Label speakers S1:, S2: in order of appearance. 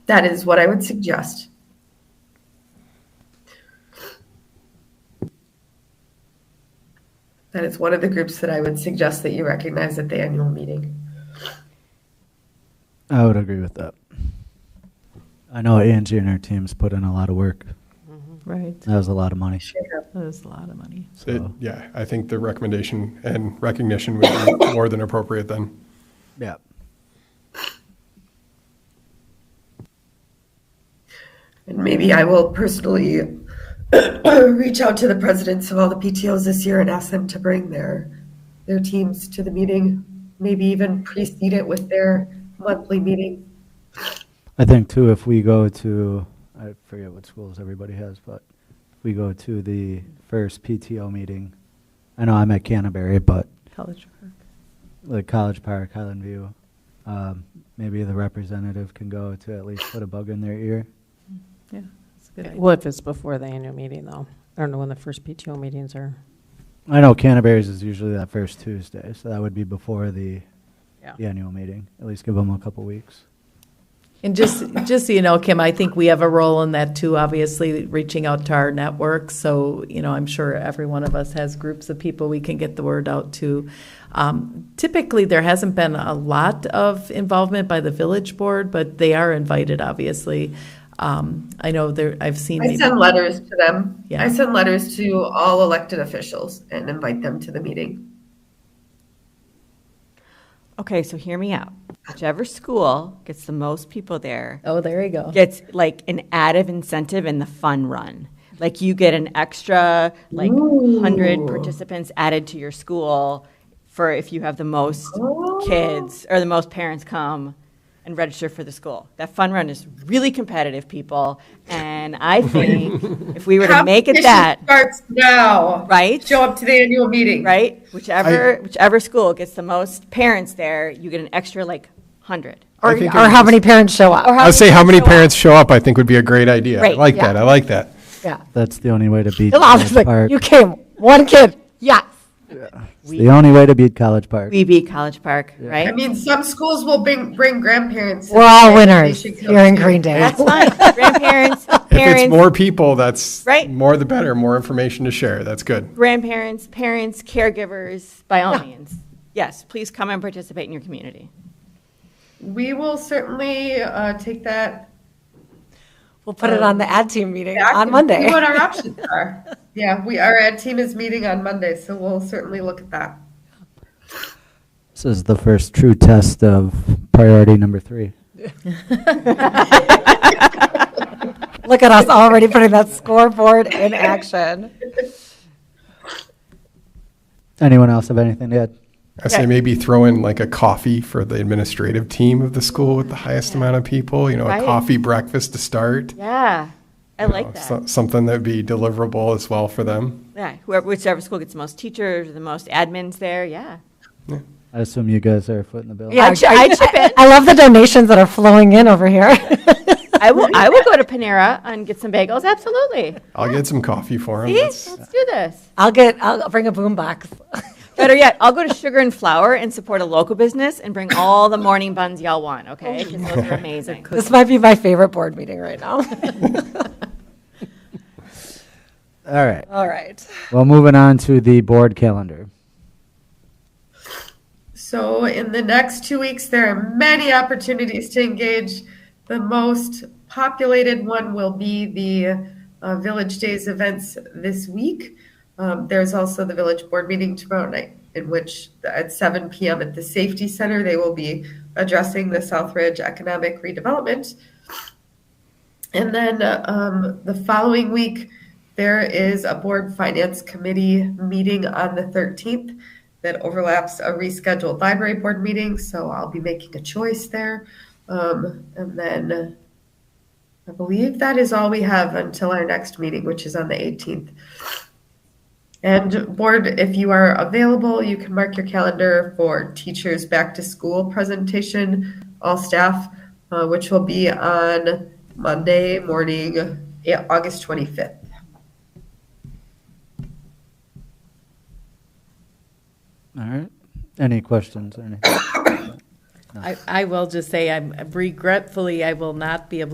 S1: That is what I would suggest. That is one of the groups that I would suggest that you recognize at the annual meeting.
S2: I would agree with that. I know Angie and her teams put in a lot of work.
S3: Right,
S2: That was a lot of money.
S3: that is a lot of money.
S2: So-
S4: It- Yeah, I think the recommendation and recognition would be more than appropriate then.
S2: Yeah.
S1: And maybe I will personally reach out to the presidents of all the PTOs this year and ask them to bring their, their teams to the meeting. Maybe even precede it with their monthly meeting.
S2: I think too, if we go to, I forget what schools everybody has, but if we go to the first PTO meeting, I know I'm at Canterbury, but
S3: College Park.
S2: like College Park, Highland View, um, maybe the representative can go to at least put a bug in their ear.
S3: Yeah, that's a good idea.
S5: Well, if it's before the annual meeting, though. I don't know when the first PTO meetings are.
S2: I know Canterbury's is usually that first Tuesday, so that would be before the, the annual meeting. At least give them a couple weeks.
S3: And just, just so you know, Kim, I think we have a role in that too, obviously, reaching out to our network. So, you know, I'm sure every one of us has groups of people we can get the word out to. Um, typically, there hasn't been a lot of involvement by the village board, but they are invited, obviously. Um, I know there, I've seen.
S1: I
S3: maybe-
S1: send letters to them.
S3: Yeah.
S1: I send letters to all elected officials and invite them to the meeting.
S6: Okay, so hear me out. Whichever school gets the most people there
S3: Oh, there you go.
S6: gets like an added incentive in the fun run. Like you get an extra like hundred participants added to your school for if you have the most kids or the most parents come and register for the school. That fun run is really competitive, people, and I think if we were to make it that
S1: Starts now.
S6: right,
S1: Show up to the annual meeting.
S6: right, whichever whichever school gets the most parents there, you get an extra like hundred.
S5: Or,
S4: think
S5: or
S4: it
S5: how
S4: was-
S5: many parents show up.
S4: I would say how many parents show up, I think would be a great idea. I
S6: Right,
S4: like that, I like that.
S5: Yeah.
S2: That's the only way to beat
S5: You'll always
S2: College
S5: be
S2: Park.
S5: like, you came, one kid, yes.
S2: It's the only way to beat College Park.
S6: We beat College Park,
S1: I
S6: right?
S1: mean, some schools will bring, bring grandparents.
S5: We're all
S1: They- they
S5: winners
S1: should go
S5: here in
S1: too.
S5: Green Day.
S6: That's fine. Grandparents,
S4: If it's
S6: parents,
S4: more people, that's
S6: Right.
S4: more the better, more information to share, that's good.
S6: grandparents, parents, caregivers, by all means. Yes, please come and participate in your community.
S1: We will certainly uh, take that.
S5: We'll put it on the ad team meeting
S1: back
S5: on
S1: and
S5: Monday.
S1: See what our options are. Yeah, we, our ad team is meeting on Monday, so we'll certainly look at that.
S2: This is the first true test of priority number three.
S5: Look at us already putting that scoreboard in action.
S2: Anyone else have anything to add?
S4: I say maybe throw in like a coffee for the administrative team of the school with the highest amount of people, you know, a
S6: Right.
S4: coffee breakfast to start.
S6: Yeah, I
S4: you
S6: like
S4: know,
S6: that.
S4: so- Something that'd be deliverable as well for them.
S6: Yeah, whoever, whichever school gets the most teachers, or the most admins there, yeah.
S2: I assume you guys are footing the bill.
S5: Yeah,
S6: I'd- I'd chip in.
S5: I love the donations that are flowing in over here.
S6: I will, I will go to Panera and get some bagels, absolutely.
S4: I'll get some coffee for them.
S6: See, let's do this.
S5: I'll get, I'll bring a boombox.
S6: Better yet, I'll go to Sugar and Flour and support a local business and bring all the morning buns y'all want, okay? 'Cause those are amazing.
S5: This might be my favorite board meeting right now.
S2: All right.
S5: All right.
S2: Well, moving on to the board calendar.
S1: So, in the next two weeks, there are many opportunities to engage. The most populated one will be the uh, Village Days events this week. Um, there's also the Village Board meeting tomorrow night, in which at 7 p.m. at the Safety Center, they will be addressing the South Ridge economic redevelopment. And then um, the following week, there is a board finance committee meeting on the 13th that overlaps a rescheduled library board meeting, so I'll be making a choice there. Um, and then I believe that is all we have until our next meeting, which is on the 18th. And board, if you are available, you can mark your calendar for teachers back to school presentation, all staff, uh, which will be on Monday morning, yeah, August 25th.
S2: All right. Any questions or anything?
S3: I, I will just say, I'm regretfully, I will not be able